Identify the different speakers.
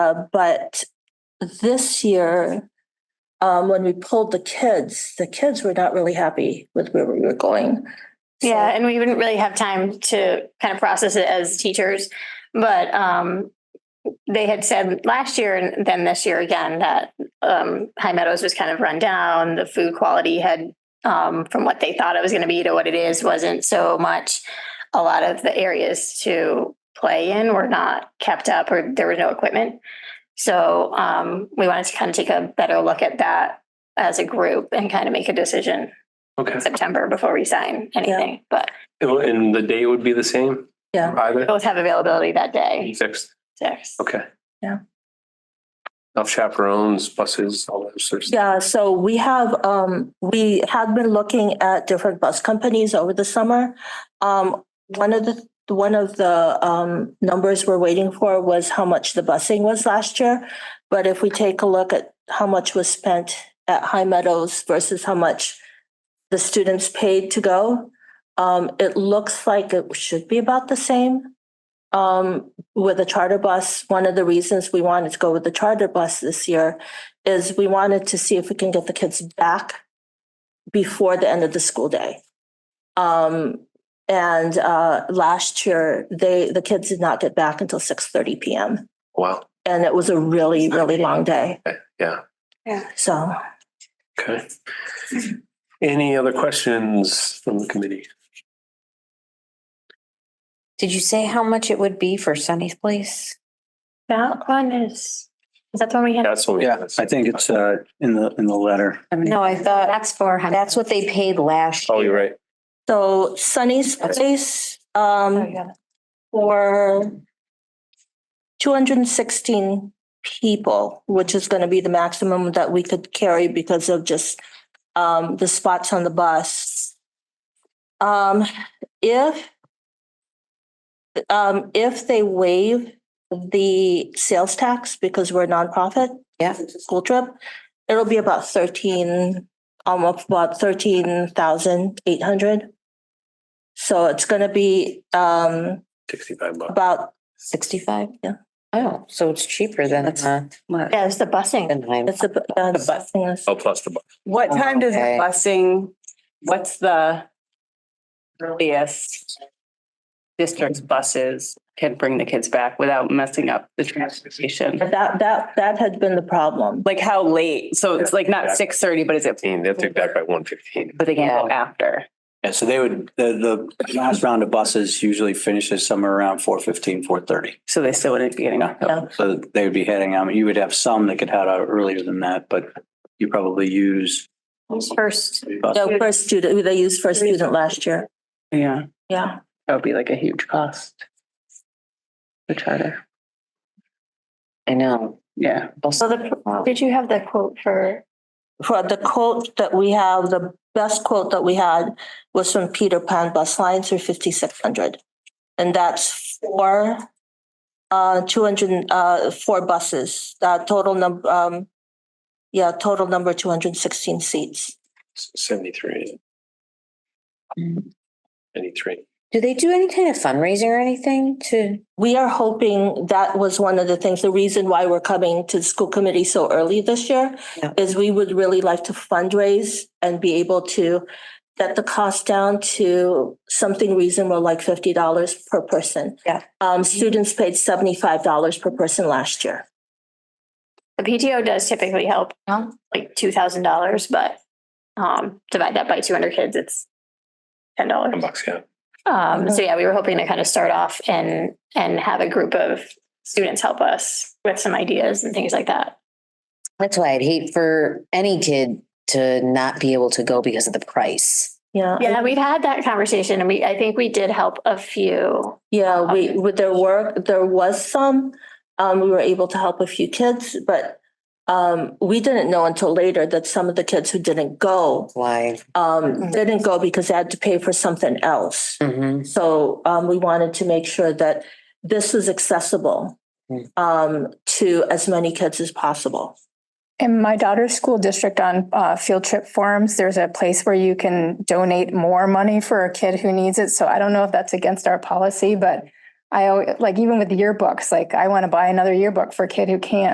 Speaker 1: Uh, but this year, um, when we pulled the kids, the kids were not really happy with where we were going. So-
Speaker 2: Yeah, and we wouldn't really have time to kind of process it as teachers, but um, they had said last year and then this year again that um, High Meadows was kind of run down. The food quality had, um, from what they thought it was going to be to what it is, wasn't so much. A lot of the areas to play in were not kept up, or there was no equipment. So um, we wanted to kind of take a better look at that as a group and kind of make a decision.
Speaker 3: Okay,
Speaker 2: September before we sign anything, but
Speaker 3: and and the day would be the same?
Speaker 1: Yeah.
Speaker 2: we
Speaker 3: Either?
Speaker 2: both have availability that day.
Speaker 3: Sixth,
Speaker 2: Six.
Speaker 3: okay.
Speaker 1: Yeah.
Speaker 3: Enough chaperones, buses, all those sorts. of-
Speaker 1: Yeah, so we have, um, we have been looking at different bus companies over the summer. Um, one of the, one of the, um, numbers we're waiting for was how much the busing was last year. But if we take a look at how much was spent at High Meadows versus how much the students paid to go, um, it looks like it should be about the same. Um, with a charter bus, one of the reasons we wanted to go with the charter bus this year is we wanted to see if we can get the kids back before the end of the school day. Um, and uh, last year, they the kids did not get back until six thirty p.m.
Speaker 3: Wow,
Speaker 1: and it was a really really long day.
Speaker 3: yeah,
Speaker 1: So
Speaker 3: okay. Any other questions from the committee?
Speaker 4: Did you say how much it would be for Sunny's Place?
Speaker 2: That one is, is that the one we had?
Speaker 3: That's what we.
Speaker 5: Yeah, I think it's uh in the, in the letter.
Speaker 4: No, I thought
Speaker 2: That's four hundred.
Speaker 4: that's what they paid last
Speaker 3: Oh,
Speaker 4: year.
Speaker 3: you're right.
Speaker 1: so Sunny's place
Speaker 2: Oh,
Speaker 1: um, for two hundred and sixteen people, which is going to be the maximum that we could carry because of just um, the spots on the bus. Um, if um, if they waive the sales tax because we're a nonprofit.
Speaker 4: Yeah.
Speaker 1: it's a School trip, it'll be about thirteen, almost about thirteen thousand eight hundred. So it's gonna be um
Speaker 3: Sixty-five bucks.
Speaker 1: about,
Speaker 4: Sixty-five?
Speaker 1: Yeah.
Speaker 4: Oh, so it's cheaper than, uh,
Speaker 2: Yeah, it's the busing.
Speaker 4: than I'm.
Speaker 1: it's a. uh,
Speaker 6: The bus.
Speaker 1: yes.
Speaker 3: Oh, plus the bus.
Speaker 6: What
Speaker 4: Oh,
Speaker 6: time does the
Speaker 4: okay.
Speaker 6: busing, what's the earliest district's buses can bring the kids back without messing up the transportation?
Speaker 1: But That, that, that had been the problem.
Speaker 6: Like how late? So it's like not six thirty, but is it,
Speaker 3: They'll take back by one fifteen.
Speaker 6: but they can go after?
Speaker 5: Yeah, so they would, the, the last round of buses usually finishes somewhere around four fifteen, four thirty.
Speaker 6: So they still wouldn't be getting off.
Speaker 1: Yeah.
Speaker 5: So they would be heading, I mean, you would have some that could head out earlier than that, but you probably use.
Speaker 2: First,
Speaker 5: bus-
Speaker 1: No, first student, they used first student last year.
Speaker 6: Yeah,
Speaker 1: Yeah.
Speaker 6: that would be like a huge cost. The charter,
Speaker 4: I know.
Speaker 6: yeah.
Speaker 2: so the, did you have the quote for,
Speaker 1: For the quote that we have, the best quote that we had was from Peter Pan Bus Lines for fifty-six hundred. And that's four, uh, two hundred, uh, four buses, uh, total number, um, yeah, total number two hundred and sixteen seats.
Speaker 3: Seventy-three. Seventy-three.
Speaker 4: Do they do any kind of fundraising or anything to?
Speaker 1: We are hoping that was one of the things, the reason why we're coming to the school committee so early this year
Speaker 4: Yeah.
Speaker 1: is we would really like to fundraise and be able to get the cost down to something reasonable, like fifty dollars per person.
Speaker 4: Yeah.
Speaker 1: Um, students paid seventy-five dollars per person last year.
Speaker 2: the PTO does typically help, like two thousand dollars, but um, divide that by two hundred kids, it's ten dollars.
Speaker 3: Ten bucks, yeah.
Speaker 2: Um, so yeah, we were hoping to kind of start off and, and have a group of students help us with some ideas and things like that.
Speaker 4: That's why I'd hate for any kid to not be able to go because of the price.
Speaker 1: Yeah.
Speaker 2: Yeah, we've had that conversation and we, I think we did help a few.
Speaker 1: Yeah, we, with their work, there was some, um, we were able to help a few kids, but um, we didn't know until later that some of the kids who didn't go
Speaker 4: Why?
Speaker 1: um, didn't go because they had to pay for something else.
Speaker 4: Mm-hmm.
Speaker 1: So, um, we wanted to make sure that this was accessible
Speaker 4: Hmm.
Speaker 1: um, to as many kids as possible.
Speaker 7: In my daughter's school district on uh, field trip forums, there's a place where you can donate more money for a kid who needs it. So I don't know if that's against our policy, but I always, like, even with yearbooks, like I want to buy another yearbook for a kid who can't